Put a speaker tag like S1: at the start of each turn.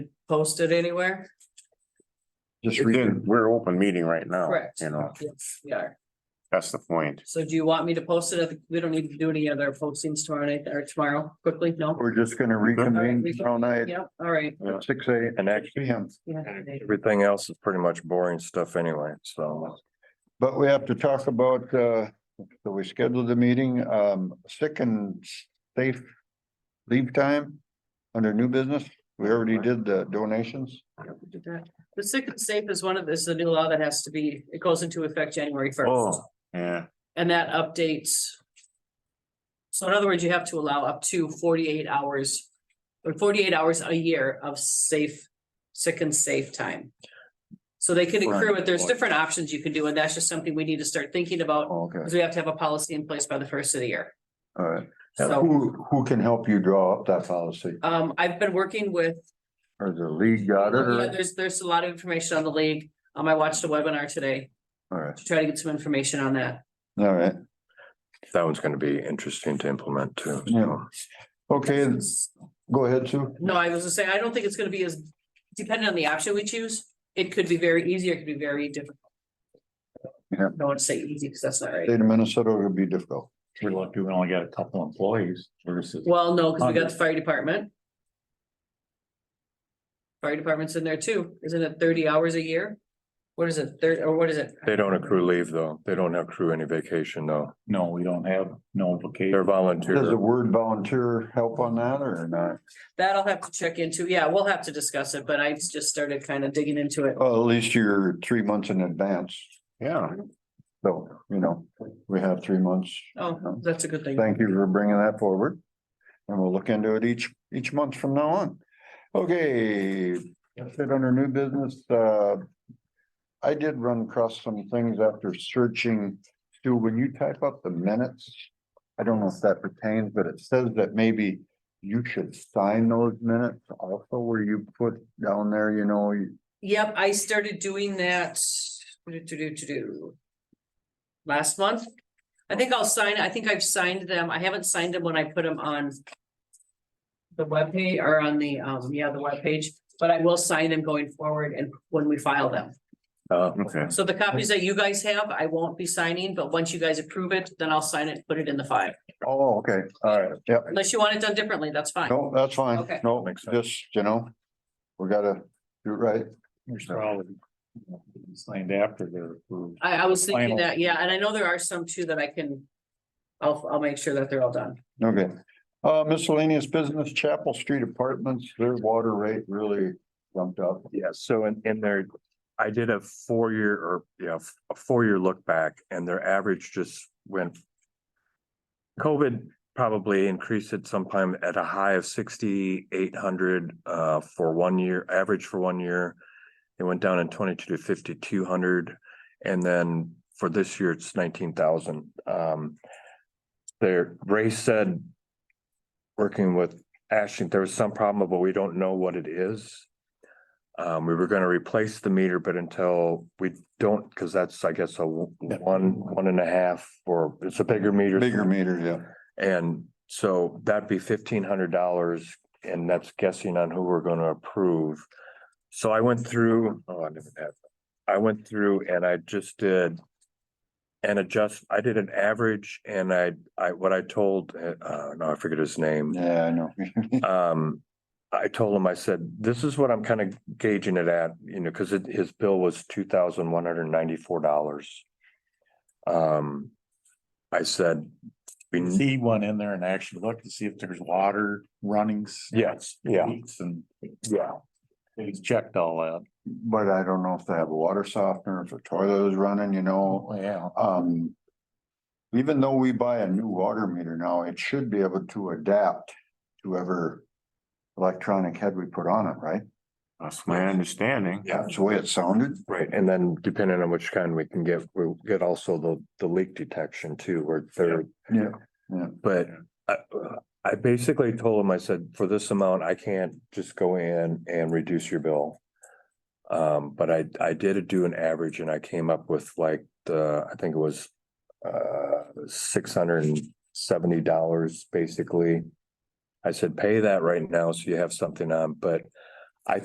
S1: posted anywhere?
S2: Just again, we're open meeting right now.
S1: Correct.
S2: Oh, You know,
S1: Yes, we are.
S2: that's the point.
S1: So do you want me to post it? at the- We don't need to do any other postings tomorrow night or tomorrow quickly? No?
S3: We're just gonna reconvene tomorrow night
S1: Yep, all right.
S3: at six A and X P M.
S1: Yeah.
S4: Everything else is pretty much boring stuff anyway, so.
S3: But we have to talk about, uh, so we scheduled the meeting, um, sick and safe leave time under new business. We already did the donations.
S1: The sick and safe is one of, is the new law that has to be, it goes into effect January first.
S2: Oh, yeah,
S1: And that updates. So in other words, you have to allow up to forty-eight hours or forty-eight hours a year of safe, sick and safe time. So they can accrue it. There's different options you can do, and that's just something we need to start thinking about,
S3: Oh, Okay,
S1: because we have to have a policy in place by the first of the year.
S3: all right.
S1: So,
S3: Who, who can help you draw up that policy?
S1: um, I've been working with
S3: Or the league got it
S1: Yeah,
S3: or?
S1: there's, there's a lot of information on the league. Um, I watched a webinar today
S3: All right,
S1: to try to get some information on that.
S3: all right.
S4: That one's gonna be interesting to implement too.
S3: Yeah. Okay, go ahead, Sue.
S1: No, I was gonna say, I don't think it's gonna be as dependent on the option we choose. It could be very easy, or it could be very difficult.
S3: Yeah.
S1: Don't want to say easy because that's not right.
S3: State of Minnesota would be difficult.
S5: We're lucky we only got a couple employees versus.
S1: Well, no,
S3: Um,
S1: because we got the fire department. Fire department's in there too. Isn't it thirty hours a year? What is it, thirty, or what is it?
S4: They don't accrue leave though. They don't accrue any vacation though.
S5: No, we don't have no vacation.
S4: They're
S3: Does the
S4: volunteer.
S3: word volunteer help on that or not?
S1: That'll have to check into. Yeah, we'll have to discuss it, but I just started kind of digging into it.
S3: Well, at least you're three months in advance.
S2: yeah.
S3: So, you know, we have three months.
S1: Oh, that's a good thing.
S3: Thank you for bringing that forward. And we'll look into it each, each month from now on. Okay, that's it under new business, uh. I did run across some things after searching, Stu, when you type up the minutes. I don't know if that pertains, but it says that maybe you should sign those minutes also where you put down there, you know, you-
S1: Yep, I started doing that. do, do, do, do, do, Last month. I think I'll sign, I think I've signed them. I haven't signed them when I put them on. The webpage or on the, um, yeah, the webpage, but I will sign them going forward and when we file them.
S3: Oh,
S4: Uh,
S2: Okay.
S1: So the copies that you guys have, I won't be signing, but once you guys approve it, then I'll sign it, put it in the file.
S3: oh, okay, all right, yep.
S1: Unless you want it done differently, that's fine.
S3: No, that's fine.
S1: Okay.
S3: No,
S4: Makes sense.
S3: just, you know, we gotta do it right.
S5: There's probably Signed after they're approved.
S1: I, I was thinking
S5: Final.
S1: that, yeah, and I know there are some too that I can. I'll, I'll make sure that they're all done.
S3: Okay. Uh, miscellaneous business, Chapel Street Apartments, their water rate really jumped up.
S4: Yeah, so in, in their, I did a four-year or, yeah, f- a four-year look back and their average just went. COVID probably increased it sometime at a high of sixty-eight hundred, uh, for one year, average for one year. It went down in twenty-two to fifty-two hundred, and then for this year, it's nineteen thousand. Um, there, Ray said, working with Ashton, there was some problem, but we don't know what it is. Um, we were gonna replace the meter, but until we don't, because that's, I guess, a w- one, one and a half, or it's a bigger meter.
S3: Bigger meter, yeah.
S4: And so that'd be fifteen hundred dollars, and that's guessing on who we're gonna approve. So I went through, oh, I didn't have, I went through and I just did. an adjust, I did an average and I, I, what I told, uh, uh, no, I forget his name.
S3: Yeah, I know.
S4: Um, I told him, I said, this is what I'm kind of gauging it at, you know, because it, his bill was two thousand one hundred ninety-four dollars. Um, I said. we need.
S5: He went in there and actually looked to see if there's water runnings.
S4: Yes, yeah.
S5: leaks, And
S4: Yeah.
S5: he's checked all that.
S3: But I don't know if they have a water softener, if the toilet is running, you know,
S5: yeah.
S3: um. Even though we buy a new water meter now, it should be able to adapt to whatever electronic head we put on it, right?
S2: That's my understanding.
S4: Yeah.
S3: That's the way it sounded.
S4: Right, and then depending on which kind we can get, we'll get also the, the leak detection too, where they're.
S3: Yeah, yeah.
S4: But I, I basically told him, I said, for this amount, I can't just go in and reduce your bill. Um, but I, I did do an average and I came up with like, the I think it was, uh, six hundred and seventy dollars, basically. I said, pay that right now, so you have something on, but